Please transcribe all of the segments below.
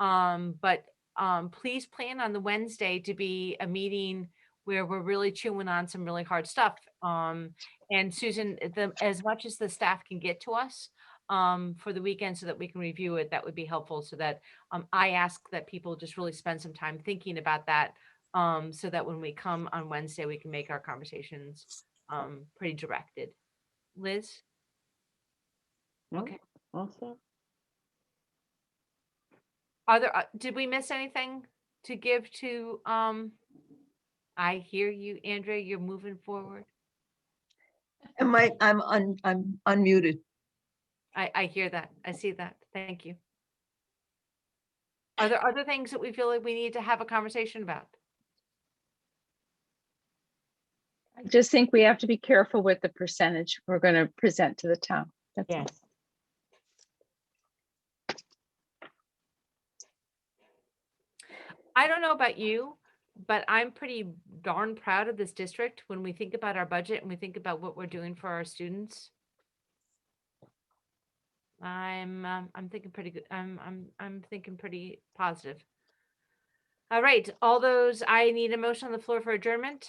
Um, but, um, please plan on the Wednesday to be a meeting where we're really chewing on some really hard stuff. Um, and Susan, eh, the, as much as the staff can get to us, um, for the weekend so that we can review it, that would be helpful so that, um, I ask that people just really spend some time thinking about that. Um, so that when we come on Wednesday, we can make our conversations, um, pretty directed. Liz? No, Okay. Also, Are there, uh, did we miss anything to give to, um, I hear you, Andrea, you're moving forward. Am I, I'm un, I'm unmuted. I, I hear that. I see that. Thank you. Are there other things that we feel like we need to have a conversation about? I just think we have to be careful with the percentage we're going to present to the town. That's all. yes. I don't know about you, but I'm pretty darn proud of this district when we think about our budget and we think about what we're doing for our students. I'm, um, I'm thinking pretty good. I'm, I'm, I'm thinking pretty positive. All right, all those, I need a motion on the floor for adjournment.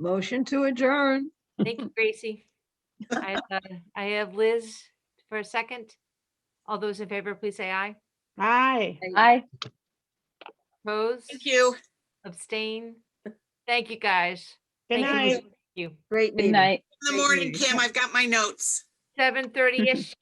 Motion to adjourn. Thank you, Gracie. I uh, I have Liz for a second. All those in favor, please say aye. Hi. Aye. Opposed? Thank you. Abstain? Thank you, guys. Good Thank you, night. Liz. Thank You. Great Good meeting. night. In the morning, Kim, I've got my notes. Seven thirty-ish.